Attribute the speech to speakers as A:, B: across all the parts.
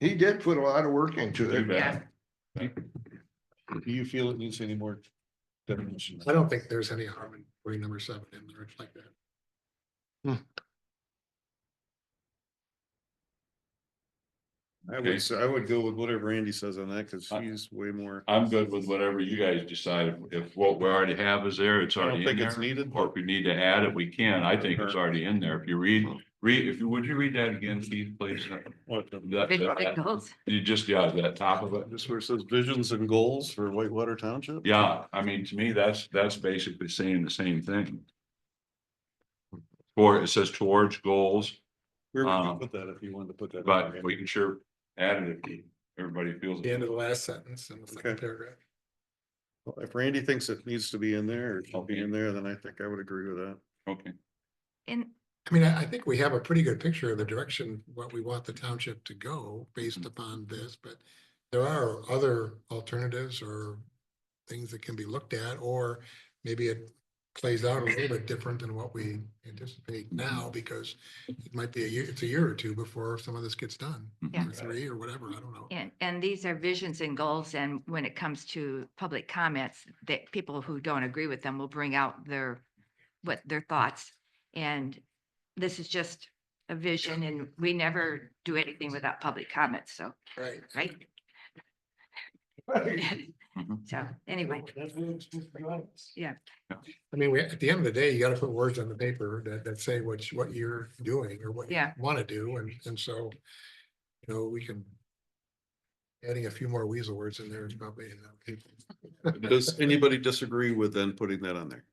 A: He did put a lot of work into it.
B: Yeah.
A: Do you feel it needs any more? definition?
C: I don't think there's any harm in putting number seven in there It's like that.
D: I
B: Okay.
D: would, say- I would go with whatever Andy says on that, cause
B: I-
D: he's way more.
B: I'm good with whatever you guys decide. If what we already have is there, it's
D: I
B: already
D: don't
B: in
D: think it's
B: there.
D: needed.
B: Or if we need to add it, we can. I think it's already in there. If you read, read, if you, would you read that again, Keith, please? That-
D: What the-
E: uh,
B: that-
F: goals.
B: You just, yeah, that top of it.
D: Just where it says visions and goals for Whitewater Township?
B: Yeah, I mean, to me, that's, that's basically saying the same thing. Or it says towards goals,
D: Where would you
B: Um,
D: put that if you wanted to put that? in
B: but
D: there?
B: we can sure add it if everybody feels.
C: The end of the last sentence in the second
D: Okay.
C: paragraph.
D: Well, If Randy thinks it needs to be in there, it should be in there, then I think I would agree with that.
B: Okay,
F: And
C: I mean, I, I think we have a pretty good picture of the direction, what we want the township to go based upon this, but there are other alternatives or things that can be looked at, or maybe it plays out a little bit different than what we anticipate now, because it might be a year, it's a year or two before some of this gets done,
F: Yeah.
C: or three or whatever, I don't know.
F: And, and these are visions and goals, and when it comes to public comments, that people who don't agree with them will bring out their, what their thoughts. And this is just a vision, and we never do anything without public comments, so,
C: Right.
F: right?
E: Mm-hmm.
F: So, anyway, yeah,
C: I mean, we, at the end of the day, you gotta put words on the paper that, that say what, you- what you're doing or what you
F: Yeah.
C: wanna do, and, and so, you know, we can adding a few more weasel words in there is probably. enough.
D: Does anybody disagree with then putting that on there?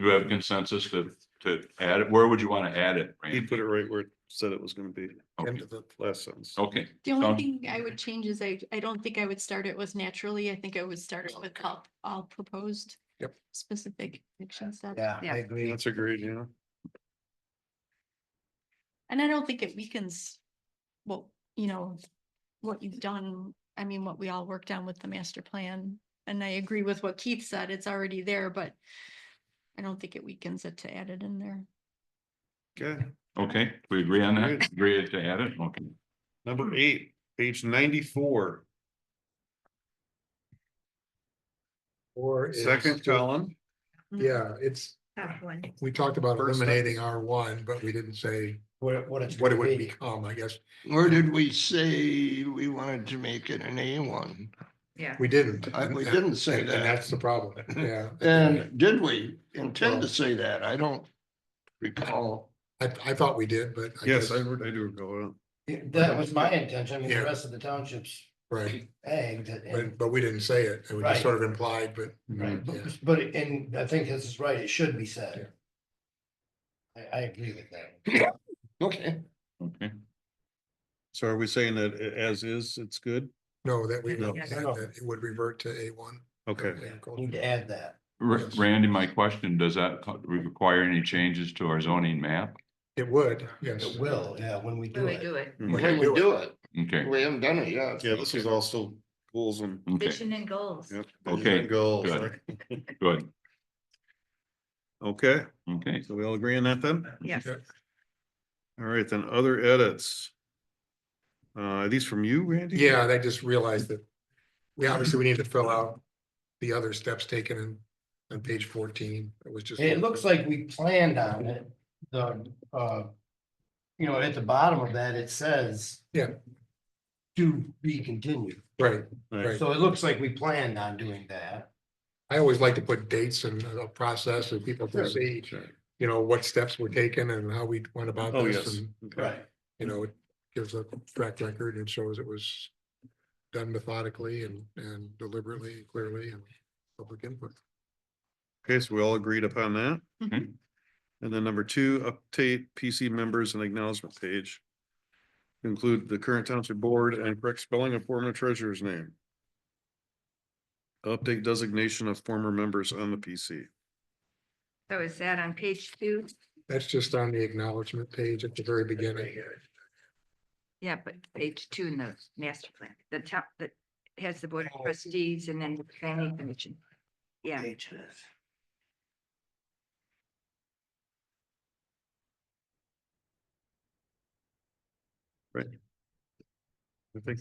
B: you have consensus to, to add it. Where would you want to add it?
D: He
B: Randy?
D: put it right where it said it was gonna be,
C: End
B: Okay.
C: of the-
D: last sentence.
B: Okay,
G: The
B: Sounds-
G: only thing I would change is I, I don't think I would start it with naturally. I think I would start it with all, all proposed.
C: Yep.
G: Specific action steps.
E: Yeah,
F: Yeah.
E: I agree.
D: That's a great, yeah.
G: And I don't think it weakens what, you know, what you've done. I mean, what we all worked on with the master plan. And I agree with what Keith said. It's already there, but I don't think it weakens it to add it in there.
D: Okay,
B: okay, we agree on that,
D: Great.
B: agree to add it, okay.
D: number eight, page ninety-four,
C: Or. is-
D: second column.
C: Yeah, it's, we talked about
D: First sentence.
C: eliminating R one, but we didn't say
E: What, it- what it's.
C: what it
E: gonna
C: would become, I guess.
A: Or did we say we wanted to make it an A one?
F: yeah.
C: We didn't.
A: I- we didn't say
C: And-
A: that.
C: And that's the problem, yeah.
A: And did we intend to say that? I don't recall.
C: I, I thought we did, but. I
D: Yes, I,
C: guess-
D: would- I do go with
E: That was my intention, I mean,
C: Yeah.
E: the rest of the townships
C: Right,
E: egged it,
C: but,
E: and,
C: but we didn't say it, it was just
E: Right.
C: sort of implied, but.
D: that.
E: but,
C: Yeah.
E: but, it- and I think this is right, it should be said. I, I agree with that.
A: Okay.
B: Okay,
D: So are we saying that a- as is, it's good?
C: No, that we,
D: No.
C: that that it would revert to A one.
D: Okay,
E: Need to add that.
B: Ra-
C: Yes.
B: Randy, my question, does that co- require any changes to our zoning map?
C: It would, yes.
E: It will, yeah, when we do
F: We
E: it. Mm-hmm.
F: do it.
A: Can we do it?
B: Okay,
A: We haven't done it yet.
D: yeah, this is all still goals and.
B: okay,
F: Vision and goals.
D: yep,
B: Okay,
D: Goals.
B: good. good,
D: Okay,
B: okay,
D: so we all agree on that then?
F: Yes.
D: All right, then other edits. Uh, are these from you, Randy?
C: Yeah, and I just realized that, we obviously, we need to fill out the other steps taken in, on page fourteen, it was just.
E: It looks like we planned on it, the, uh, you know, at the bottom of that, it says.
C: Yeah.
E: To be continued,
C: Right,
D: Right.
E: so it looks like we planned on doing that.
C: I always like to put dates and a process so people can see, you know, what steps were taken and how we went about
D: Oh,
C: this.
D: yes.
C: and
D: Okay.
C: You know, it gives a track record and shows it was done methodically and, and deliberately, clearly, and public input.
D: Okay, so we all agreed upon that.
B: Mhm.
D: And then number two, update PC members and acknowledgement page. Include the current township board and correct spelling of former treasurer's name. Update designation of former members on the PC.
F: So is that on page two?
C: That's just on the acknowledgement page at the very beginning.
F: Yeah, but page two in the master plan, the top, that has the board of trustees and then the planning commission. Yeah.
E: Pages.
D: I think